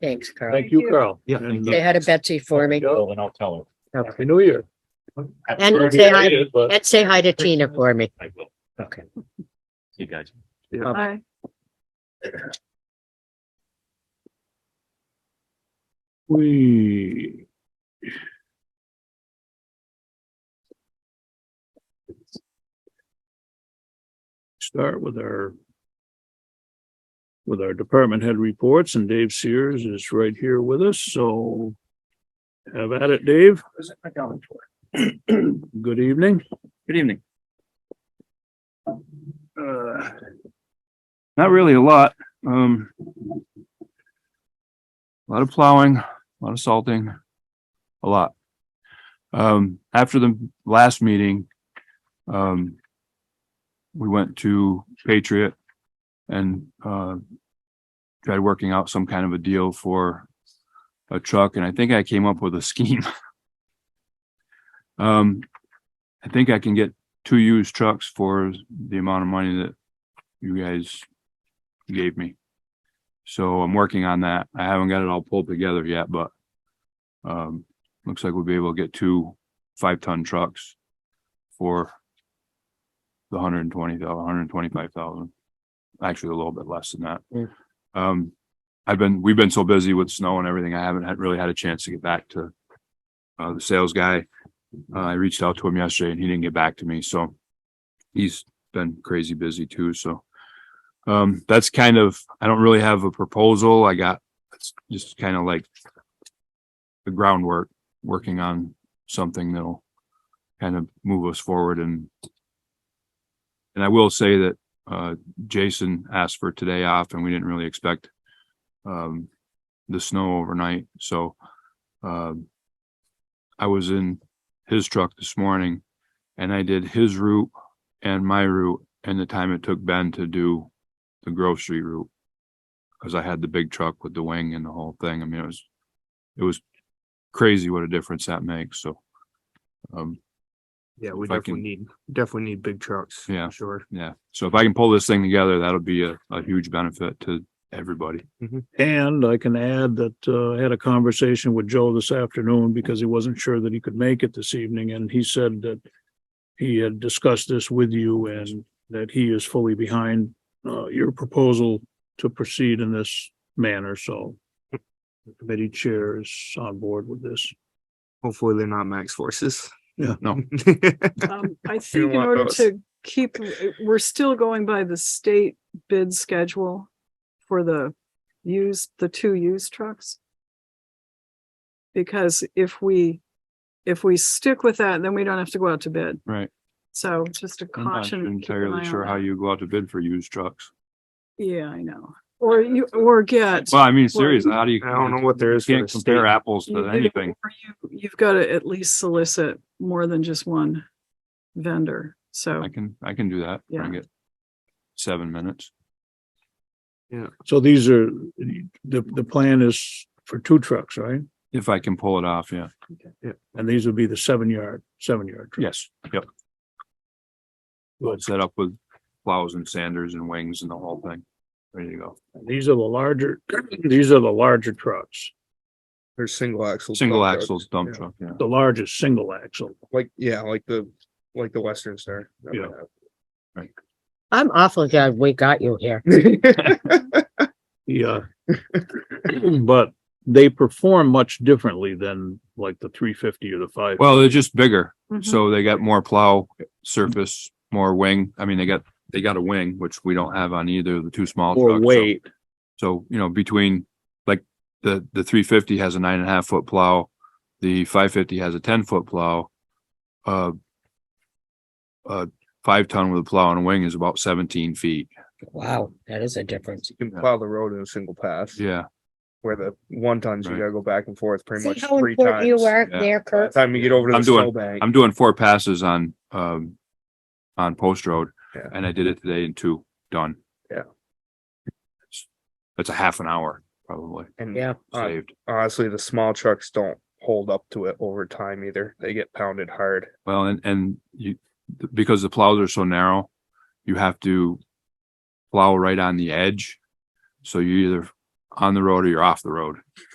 Thanks, Carl. Thank you, Carl. Yeah, And, thank Say uh, hi to Betsy for me Joe, and I'll tell her. Happy New Year. and say hi, It is, but- and say hi to Tina for me. I will. Okay. You guys. Oh. Aye. We. Start with our. With our department head reports and Dave Sears is right here with us, so. Have at it, Dave. Good evening. Good evening. Uh, Not really a lot, um. A lot of plowing, a lot of salting, a lot. Um, after the last meeting, um. We went to Patriot and, uh. Tried working out some kind of a deal for a truck, and I think I came up with a scheme. Um, I think I can get two used trucks for the amount of money that you guys gave me. So I'm working on that. I haven't got it all pulled together yet, but um, looks like we'll be able to get two five-ton trucks for the hundred and twenty thousand, hundred and twenty-five thousand. Actually, a little bit less than that. Yeah. Um, I've been, we've been so busy with snow and everything, I haven't had, really had a chance to get back to uh, the sales guy. Uh, I reached out to him yesterday and he didn't get back to me, so he's been crazy busy too, so. Um, that's kind of, I don't really have a proposal. I got, it's just kind of like the groundwork, working on something that'll kind of move us forward and and I will say that uh Jason asked for today off and we didn't really expect um the snow overnight, so um I was in his truck this morning and I did his route and my route and the time it took Ben to do the grocery route. Cause I had the big truck with the wing and the whole thing. I mean, it was, it was crazy what a difference that makes. So, um, Yeah, we If I can- definitely need, definitely need big trucks. Yeah. Sure. yeah. So if I can pull this thing together, that'll be a, a huge benefit to everybody. And I can add that uh, I had a conversation with Joe this afternoon because he wasn't sure that he could make it this evening, and he said that he had discussed this with you and that he is fully behind uh, your proposal to proceed in this manner, so the committee chair is on board with this. Hopefully they're not max forces. Yeah. No. Um, I think in want order those. to keep, eh, we're still going by the state bid schedule for the used, the two used trucks. Because if we, if we stick with that, then we don't have to go out to bid. Right. So just a I'm not caution. keep an eye entirely on sure how that. you go out to bid for used trucks. Yeah, I know. Or you, or get. Well, I mean, seriously, how do you? I don't know what there is. for Can't the state. compare apples You- to anything. or you- You've got to at least solicit more than just one vendor. So I can, I can do that. Yeah. Bring it. Seven minutes. So these are, the, the plan is for two trucks, right? If I can pull it off, yeah. And these would be the seven yard, seven yard. trucks. Yes, yep. uh, Set up with plows and sanders and wings and the whole thing. Ready to go. These are the larger, these are the larger trucks, They're single axle. Single dump trucks. axles dump Yeah. truck, yeah. the largest single axle. Like, yeah, like the, like the Western Star. that Yeah. I'm awfully glad we got you here. might have. Yeah. uh, But they perform much differently than like the three fifty or the five. Well, they're just bigger, Mhm. Mm-hmm. so they got more plow surface, more wing. I mean, they got, they got a wing, which we don't have on either of the two small Or trucks. so- weight, So, you know, between, like, the, the three fifty has a nine and a half foot plow, the five fifty has a ten foot plow. Uh, uh, five ton with a plow and a wing is about seventeen feet. Wow, that is a difference. You can plow the road in a single pass Yeah, where the one tons, you Right. gotta go back and forth pretty See much how three important you times. are Yeah. there, By the Kurt? Time you get over to I'm the doing- snowbank. I'm doing four passes on, um, on Post Road, Yeah. and I did it today in two, done. Yeah. It's- That's a half an hour, probably, And Yeah. Uh, saved. honestly, the small trucks don't hold up to it over time either. They get pounded hard. Well, and, and you, because the plows are so narrow, you have to plow right on the edge. So you either on the road or you're off the road.